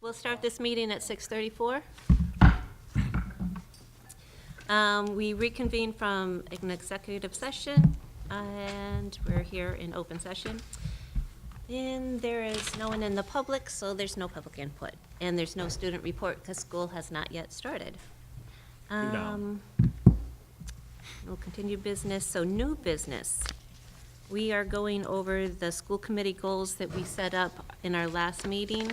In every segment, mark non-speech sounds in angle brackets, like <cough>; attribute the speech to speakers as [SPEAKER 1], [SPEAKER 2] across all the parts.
[SPEAKER 1] We'll start this meeting at 6:34. Um, We reconvene from an executive session, and we're here in open session. And there is no one in the public, so there's no public input. And there's no student report because school has not yet started. Um, We'll continue business, so new business. We are going over the school committee goals that we set up in our last meeting.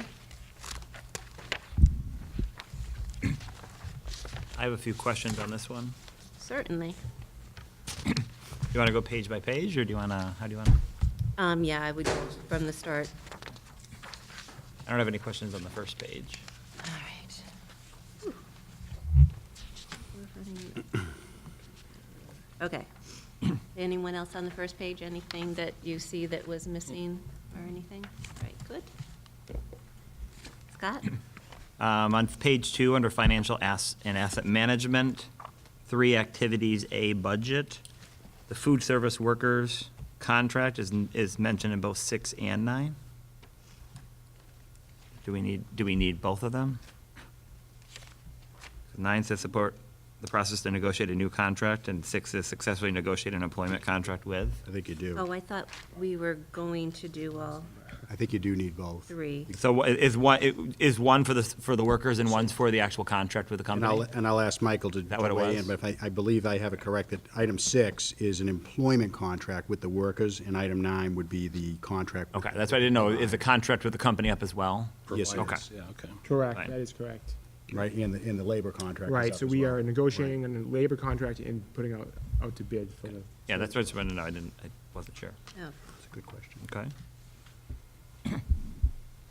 [SPEAKER 2] I have a few questions on this one.
[SPEAKER 1] Certainly.
[SPEAKER 2] Do you want to go page by page, or do you want to, how do you want to?
[SPEAKER 1] Um, yeah, I would go from the start.
[SPEAKER 2] I don't have any questions on the first page.
[SPEAKER 1] All right. <coughs> Okay. Anyone else on the first page, anything that you see that was missing or anything? All right, good. Scott?
[SPEAKER 2] Um, On page two, under financial ass and asset management, three activities, A, budget. The food service workers contract is, is mentioned in both six and nine. Do we need, do we need both of them? Nine says support the process to negotiate a new contract, and six is successfully negotiate an employment contract with.
[SPEAKER 3] I think you
[SPEAKER 1] Oh,
[SPEAKER 3] do.
[SPEAKER 1] I thought we were going to do all
[SPEAKER 3] I think you do need both.
[SPEAKER 1] three.
[SPEAKER 2] So wha- is one, is one for the, for the workers and one's for the actual contract with the
[SPEAKER 3] And I'll,
[SPEAKER 2] company?
[SPEAKER 3] and I'll ask Michael to
[SPEAKER 2] that what
[SPEAKER 3] to
[SPEAKER 2] it
[SPEAKER 3] weigh
[SPEAKER 2] was?
[SPEAKER 3] in, but if I, I believe I have it correct that item six is an employment contract with the workers, and item nine would be the contract. with-
[SPEAKER 2] Okay, that's what I didn't know. Is the contract with the company up as well?
[SPEAKER 3] Yes, it
[SPEAKER 2] Okay.
[SPEAKER 3] is,
[SPEAKER 4] Yeah, okay.
[SPEAKER 2] Right.
[SPEAKER 5] Correct, that is correct.
[SPEAKER 3] Right, and the, and the labor contract is
[SPEAKER 5] Right,
[SPEAKER 3] up
[SPEAKER 5] so
[SPEAKER 3] as
[SPEAKER 5] we
[SPEAKER 3] well.
[SPEAKER 5] are negotiating on a labor contract and putting out, out to bid for the.
[SPEAKER 2] Yeah, that's what I just wanted to know. I didn't, I wasn't sure.
[SPEAKER 4] Um,
[SPEAKER 1] Oh,
[SPEAKER 3] That's a good question.
[SPEAKER 2] Okay.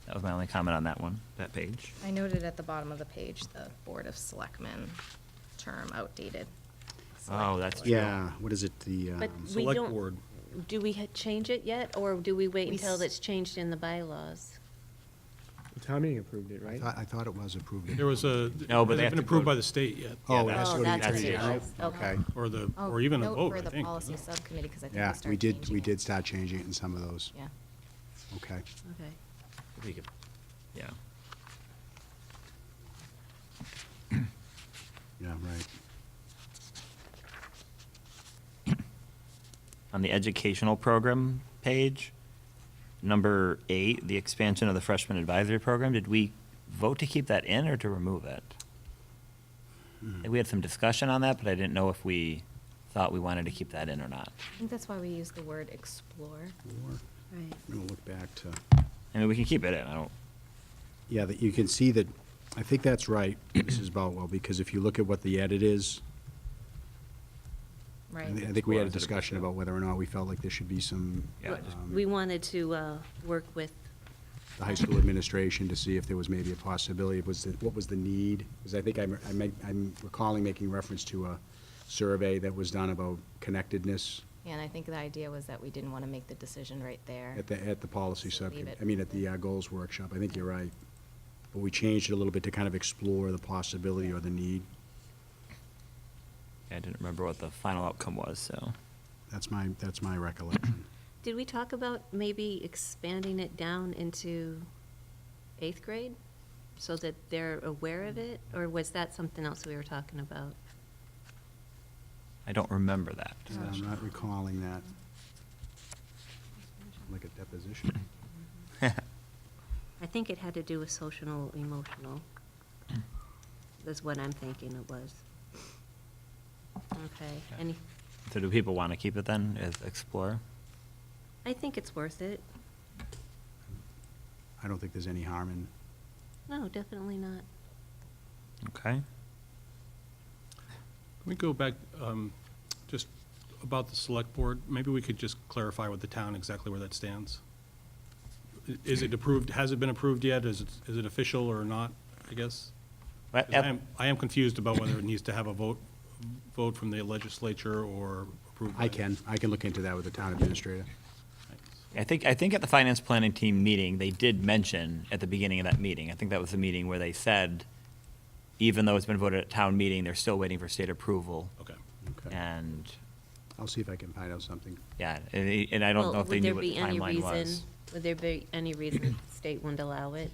[SPEAKER 2] That was my only comment on that one, that page.
[SPEAKER 6] I noted at the bottom of the page, the Board of Selectmen term outdated.
[SPEAKER 2] Oh, that's true.
[SPEAKER 3] Yeah, what is it, the,
[SPEAKER 1] But
[SPEAKER 3] um,
[SPEAKER 1] we
[SPEAKER 4] Select
[SPEAKER 1] don't,
[SPEAKER 4] board.
[SPEAKER 1] do we ha- change it yet, or do we wait
[SPEAKER 6] We
[SPEAKER 1] until
[SPEAKER 6] s-
[SPEAKER 1] it's changed in the bylaws?
[SPEAKER 5] The Town meeting approved it,
[SPEAKER 3] I
[SPEAKER 5] right?
[SPEAKER 3] thought, I thought it was approved.
[SPEAKER 4] There was a, it
[SPEAKER 2] No, but they have to
[SPEAKER 4] hasn't been approved
[SPEAKER 2] go-
[SPEAKER 4] by the state yet,
[SPEAKER 2] Yeah,
[SPEAKER 3] Oh, it
[SPEAKER 2] that's-
[SPEAKER 3] has to go to the
[SPEAKER 1] that's
[SPEAKER 3] attorney
[SPEAKER 2] it.
[SPEAKER 3] general?
[SPEAKER 1] Okay.
[SPEAKER 4] or the,
[SPEAKER 6] Oh,
[SPEAKER 4] or even a
[SPEAKER 6] note
[SPEAKER 4] vote,
[SPEAKER 6] for
[SPEAKER 4] I
[SPEAKER 6] the
[SPEAKER 4] think.
[SPEAKER 6] policy subcommittee, because I think we
[SPEAKER 3] Yeah,
[SPEAKER 6] started
[SPEAKER 3] we did, we
[SPEAKER 6] changing it.
[SPEAKER 3] did start changing it in some of those.
[SPEAKER 6] Yeah.
[SPEAKER 3] Okay.
[SPEAKER 1] Okay.
[SPEAKER 2] We could- Yeah.
[SPEAKER 3] Yeah, right.
[SPEAKER 2] On the educational program page, number eight, the expansion of the freshman advisory program, did we vote to keep that in or to remove it? I think We had some discussion on that, but I didn't know if we thought we wanted to keep that in or not.
[SPEAKER 6] I think that's why we used the word explore.
[SPEAKER 3] Four.
[SPEAKER 1] Right.
[SPEAKER 3] I'm gonna look back to,
[SPEAKER 2] I mean, we can keep it in, I don't,
[SPEAKER 3] yeah, that you can see that, I think that's right, <coughs> Mrs. Boutwell, because if you look at what the edit is, I
[SPEAKER 6] Right.
[SPEAKER 3] thi- I think we had
[SPEAKER 2] Explore as
[SPEAKER 3] a
[SPEAKER 2] it
[SPEAKER 3] discussion
[SPEAKER 2] appears, yeah.
[SPEAKER 3] about whether or not we felt like there should be some,
[SPEAKER 2] Yeah, I just-
[SPEAKER 3] um,
[SPEAKER 1] We wanted to uh, work with,
[SPEAKER 3] the high school administration to see if there was maybe a possibility, was it, what was the need? Because I think I'm, I make- I'm recalling making reference to a survey that was done about connectedness
[SPEAKER 6] And I think the idea was that we didn't want to make the decision right there.
[SPEAKER 3] at the, at the policy
[SPEAKER 6] So leave
[SPEAKER 3] subcommittee,
[SPEAKER 6] it.
[SPEAKER 3] I mean, at the uh, goals workshop, I think you're right. But we changed it a little bit to kind of explore the possibility or the need,
[SPEAKER 2] I didn't remember what the final outcome was, so.
[SPEAKER 3] that's my, that's my recollection.
[SPEAKER 1] did we talk about maybe expanding it down into eighth grade? So that they're aware of it, or was that something else we were talking about?
[SPEAKER 2] I don't remember that.
[SPEAKER 3] Uh,
[SPEAKER 2] <laughs>
[SPEAKER 3] I'm not recalling that. Like a deposition.
[SPEAKER 1] I think it had to do with social, emotional, is what I'm thinking it was. Okay,
[SPEAKER 2] Okay.
[SPEAKER 1] any,
[SPEAKER 2] So do people want to keep it then, as explore?
[SPEAKER 1] I think it's worth it.
[SPEAKER 3] I don't think there's any harm in,
[SPEAKER 1] No, definitely not.
[SPEAKER 2] Okay.
[SPEAKER 4] Can we go back, um, just about the select board? Maybe we could just clarify with the town exactly where that stands. I- Is it approved, has it been approved yet? Is it, is it official or not, I guess? 'Cause I am, I am confused about whether it needs to have a vote, vote from the legislature or approved. by-
[SPEAKER 3] I can, I can look into that with the town administrator.
[SPEAKER 2] I think, I think at the finance planning team meeting, they did mention at the beginning of that meeting, I think that was the meeting where they said, even though it's been voted at town meeting, they're still waiting for state approval.
[SPEAKER 4] Okay.
[SPEAKER 3] Okay.
[SPEAKER 2] And,
[SPEAKER 3] I'll see if I can find out something.
[SPEAKER 2] yeah, and and I don't
[SPEAKER 1] Well,
[SPEAKER 2] know if they
[SPEAKER 1] would there
[SPEAKER 2] knew what
[SPEAKER 1] be
[SPEAKER 2] the
[SPEAKER 1] any
[SPEAKER 2] timeline was.
[SPEAKER 1] reason- Would there be any reason the state wouldn't allow it?